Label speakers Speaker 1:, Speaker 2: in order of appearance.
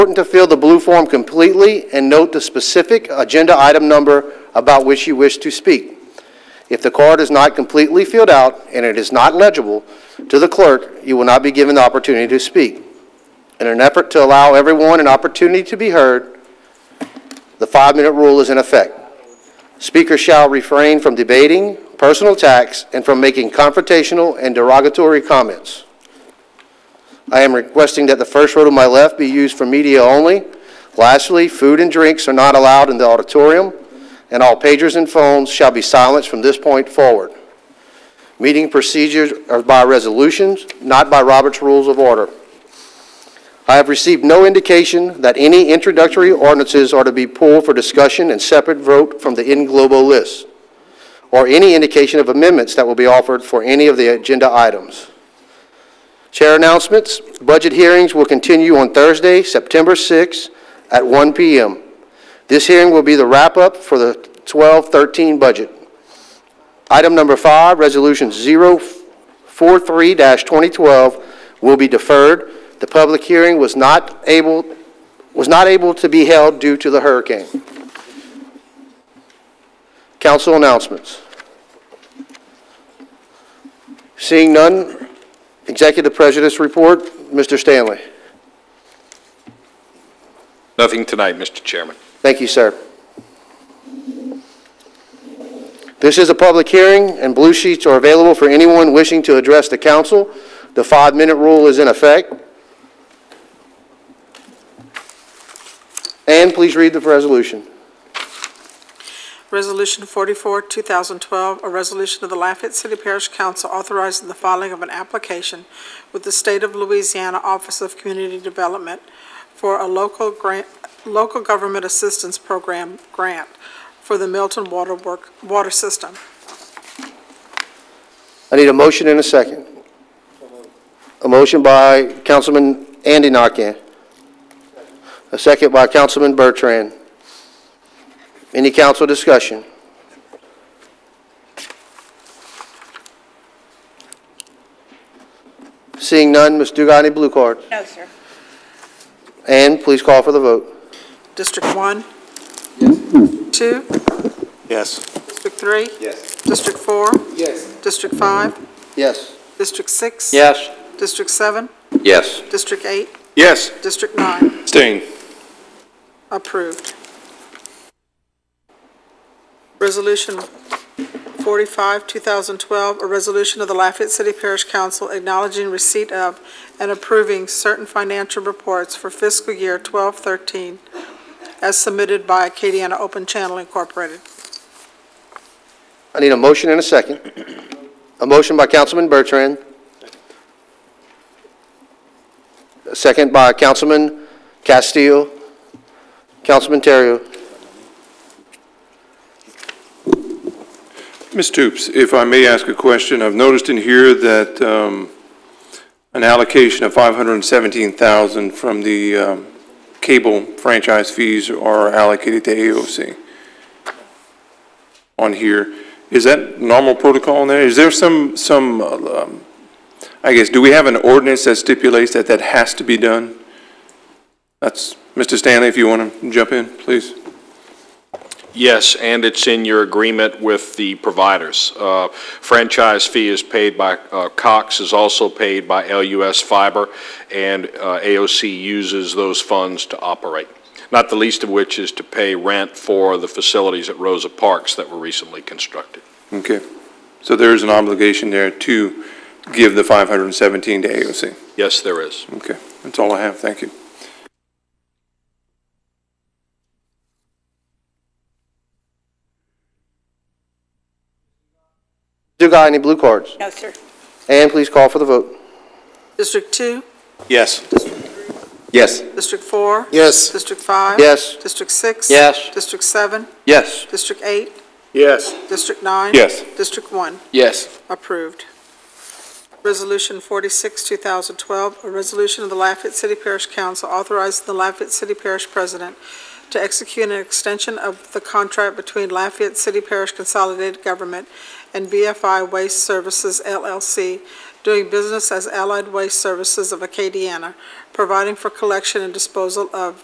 Speaker 1: Important to fill the blue form completely and note the specific agenda item number about which you wish to speak. If the card is not completely filled out and it is not legible to the clerk, you will not be given the opportunity to speak. In an effort to allow everyone an opportunity to be heard, the five-minute rule is in effect. Speakers shall refrain from debating, personal attacks, and from making confrontational and derogatory comments. I am requesting that the first row to my left be used for media only. Lastly, food and drinks are not allowed in the auditorium, and all pagers and phones shall be silenced from this point forward. Meeting procedures are by resolutions, not by Robert's Rules of Order. I have received no indication that any introductory ordinances are to be pulled for discussion and separate vote from the in globo list, or any indication of amendments that will be offered for any of the agenda items. Chair announcements. Budget hearings will continue on Thursday, September 6th at 1 PM. This hearing will be the wrap-up for the 12-13 budget. Item number five, Resolution 043-2012 will be deferred. The public hearing was not able, was not able to be held due to the hurricane. Council announcements. Seeing none, Executive Prejudice Report, Mr. Stanley.
Speaker 2: Nothing tonight, Mr. Chairman.
Speaker 1: Thank you, sir. This is a public hearing, and blue sheets are available for anyone wishing to address the council. The five-minute rule is in effect. And please read the resolution.
Speaker 3: Resolution 44, 2012, a resolution of the Lafayette City Parish Council authorizing the filing of an application with the State of Louisiana Office of Community Development for a local grant, local government assistance program grant for the Milton Water Work, Water System.
Speaker 1: I need a motion and a second. A motion by Councilman Andy Nakane. A second by Councilman Bertrand. Any council discussion? Seeing none, Ms. Dugai, any blue cards?
Speaker 4: No, sir.
Speaker 1: And please call for the vote.
Speaker 3: District 1? 2?
Speaker 1: Yes.
Speaker 3: District 3?
Speaker 1: Yes.
Speaker 3: District 4?
Speaker 1: Yes.
Speaker 3: District 5?
Speaker 1: Yes.
Speaker 3: District 6?
Speaker 1: Yes.
Speaker 3: District 7?
Speaker 2: Yes.
Speaker 3: District 8?
Speaker 2: Yes.
Speaker 3: District 9?
Speaker 2: Abstain.
Speaker 3: Approved. Resolution 45, 2012, a resolution of the Lafayette City Parish Council acknowledging receipt of and approving certain financial reports for fiscal year 1213 as submitted by Acadiana Open Channel Incorporated.
Speaker 1: I need a motion and a second. A motion by Councilman Bertrand. A second by Councilman Castillo. Councilman Terrio.
Speaker 5: Ms. Toops, if I may ask a question, I've noticed in here that um, an allocation of 517000 from the um, cable franchise fees are allocated to AOC on here. Is that normal protocol in there? Is there some, some, um, I guess, do we have an ordinance that stipulates that that has to be done? That's, Mr. Stanley, if you want to jump in, please.
Speaker 2: Yes, and it's in your agreement with the providers. Uh, Franchise fee is paid by, uh, Cox is also paid by LUS Fiber, and uh, AOC uses those funds to operate, not the least of which is to pay rent for the facilities at Rosa Parks that were recently constructed.
Speaker 5: Okay, so there is an obligation there to give the 517 to AOC.
Speaker 2: Yes, there is.
Speaker 5: Okay, that's all I have, thank you.
Speaker 1: Dugai, any blue cards?
Speaker 4: No, sir.
Speaker 1: And please call for the vote.
Speaker 3: District 2,
Speaker 5: Yes. Yes.
Speaker 3: District 4?
Speaker 1: Yes.
Speaker 3: District 5?
Speaker 1: Yes.
Speaker 3: District 6?
Speaker 1: Yes.
Speaker 3: District 7?
Speaker 5: Yes.
Speaker 3: District 8?
Speaker 5: Yes.
Speaker 3: District 9?
Speaker 5: Yes.
Speaker 3: District 1?
Speaker 5: Yes.
Speaker 3: Approved. Resolution 46, 2012, a resolution of the Lafayette City Parish Council authorizing the Lafayette City Parish President to execute an extension of the contract between Lafayette City Parish Consolidated Government and BFI Waste Services LLC doing business as Allied Waste Services of Acadiana, providing for collection and disposal of